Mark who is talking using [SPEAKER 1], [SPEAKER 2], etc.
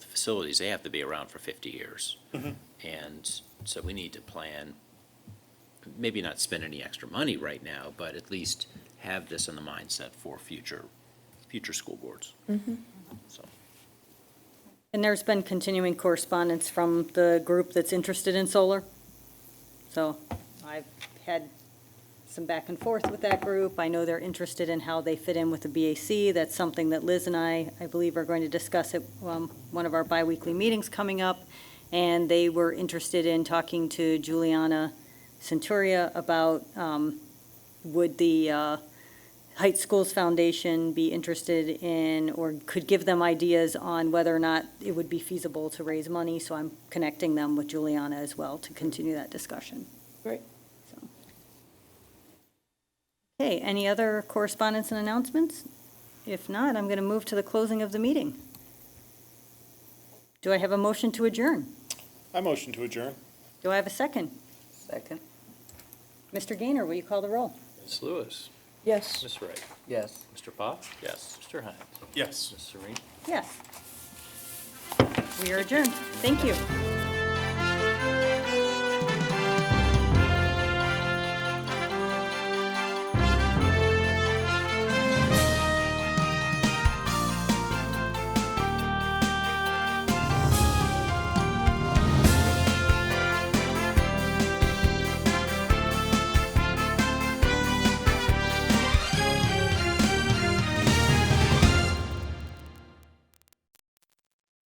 [SPEAKER 1] facilities, they have to be around for fifty years. And so we need to plan, maybe not spend any extra money right now, but at least have this in the mindset for future, future school boards. So,
[SPEAKER 2] And there's been continuing correspondence from the group that's interested in solar. So I've had some back and forth with that group. I know they're interested in how they fit in with the BAC. That's something that Liz and I, I believe, are going to discuss at um, one of our biweekly meetings coming up. And they were interested in talking to Juliana Centuria about um, would the uh, Heights Schools Foundation be interested in, or could give them ideas on whether or not it would be feasible to raise money, so I'm connecting them with Juliana as well to continue that discussion.
[SPEAKER 3] Great.
[SPEAKER 2] So. Okay, any other correspondence and announcements? If not, I'm going to move to the closing of the meeting. Do I have a motion to adjourn?
[SPEAKER 3] I motion to adjourn.
[SPEAKER 2] Do I have a second?
[SPEAKER 4] Second.
[SPEAKER 2] Mr. Gaynor, will you call the roll?
[SPEAKER 5] Ms. Lewis.
[SPEAKER 3] Yes.
[SPEAKER 5] Ms. Wright.
[SPEAKER 4] Yes.
[SPEAKER 5] Mr. Pop. Yes. Mr. Hines.
[SPEAKER 3] Yes.
[SPEAKER 5] Ms. Serene.
[SPEAKER 2] Yes. We are adjourned. Thank you.